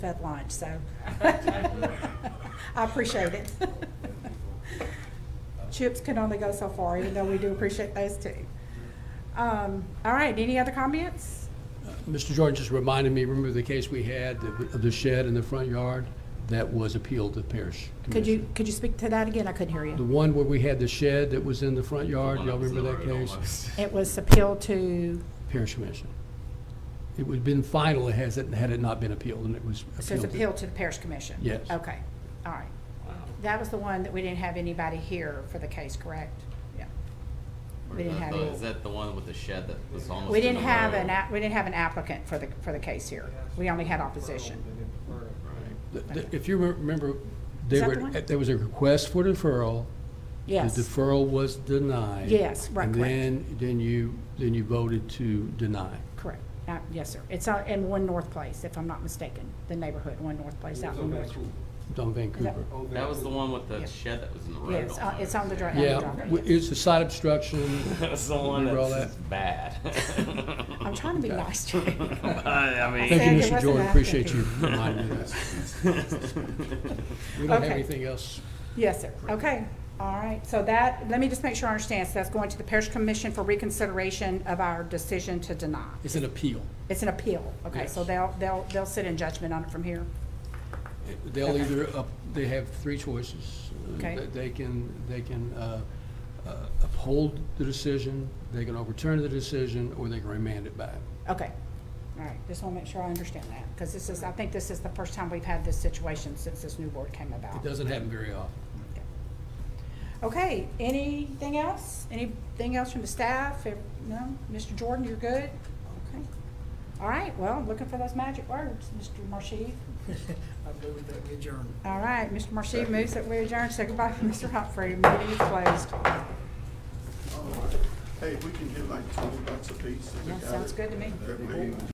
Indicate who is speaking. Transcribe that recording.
Speaker 1: at lunch, so. I appreciate it. Chips can only go so far, even though we do appreciate those too. Um, all right, any other comments?
Speaker 2: Mr. Jordan just reminded me, remember the case we had of of the shed in the front yard? That was appealed to the parish
Speaker 1: Could you,
Speaker 2: commission.
Speaker 1: could you speak to that again? I couldn't hear you.
Speaker 2: The one where we had the shed that was in the front yard, y'all remember that case?
Speaker 1: It was appealed to,
Speaker 2: Parish commission. It would have been final has it, had it not been appealed, and it was appealed.
Speaker 1: so it's
Speaker 2: to-
Speaker 1: appealed to the parish commission?
Speaker 2: Yes.
Speaker 1: Okay, all right. That was the one that we didn't have anybody here for the case, correct? Yeah. We didn't have any-
Speaker 3: Is that the one with the shed that was almost?
Speaker 1: We
Speaker 3: in
Speaker 1: didn't
Speaker 3: the
Speaker 1: have
Speaker 3: road?
Speaker 1: an, app- we didn't have an applicant for the, for the case here. We only had opposition.
Speaker 2: The- the- If you re- remember, there
Speaker 1: that
Speaker 2: were,
Speaker 1: the one?
Speaker 2: there was a request for deferral.
Speaker 1: Yes.
Speaker 2: The deferral was denied.
Speaker 1: Yes, right,
Speaker 2: And
Speaker 1: correct.
Speaker 2: then, then you, then you voted to deny.
Speaker 1: Correct. Uh, Yes, sir. It's out in One North Place, if I'm not mistaken, the neighborhood, One North Place out in North.
Speaker 2: It's on Vancouver.
Speaker 3: That was the one with
Speaker 1: Yeah.
Speaker 3: the shed that was in the road.
Speaker 1: Yeah, it's on- it's on the dri-
Speaker 2: Yeah,
Speaker 1: Driver,
Speaker 2: w-
Speaker 1: yes.
Speaker 2: it's a side obstruction.
Speaker 3: That's the one
Speaker 2: Remember all
Speaker 3: that's just bad.
Speaker 1: I'm trying to be nice to you.
Speaker 3: I
Speaker 2: Thank
Speaker 1: Thank
Speaker 2: you,
Speaker 1: you,
Speaker 2: Mr.
Speaker 1: Mr.
Speaker 2: Jordan,
Speaker 1: Mathis.
Speaker 2: appreciate you reminding me of that.
Speaker 3: mean.
Speaker 2: We don't have
Speaker 1: Okay.
Speaker 2: anything else.
Speaker 1: Yes, sir. Okay. All right. So that, let me just make sure I understand. So that's going to the Parish Commission for reconsideration of our decision to deny.
Speaker 2: It's an appeal.
Speaker 1: It's an appeal. Okay, so
Speaker 2: Yes.
Speaker 1: they'll, they'll, they'll sit in judgment on it from here.
Speaker 2: They'll
Speaker 1: Okay.
Speaker 2: either, up- they have three choices. Uh,
Speaker 1: Okay.
Speaker 2: they- They can, they can uh, uh, uphold the decision, they can overturn the decision, or they can remand it back.
Speaker 1: Okay. All right. Just want to make sure I understand that, because this is, I think this is the first time we've had this situation since this new board came about.
Speaker 2: It doesn't happen very often.
Speaker 1: Okay, anything else? Anything else from the staff? If- No? Mr. Jordan, you're good? Okay. All right, well, I'm looking for those magic words, Mr. Marshy.
Speaker 4: I move that we adjourn.
Speaker 1: All right, Mr. Marshy moves that we adjourn. Second by Mr. Humphrey. Meeting is closed.
Speaker 5: Hey, we can get like twenty bucks a piece.
Speaker 1: That sounds good to me.
Speaker 5: That way-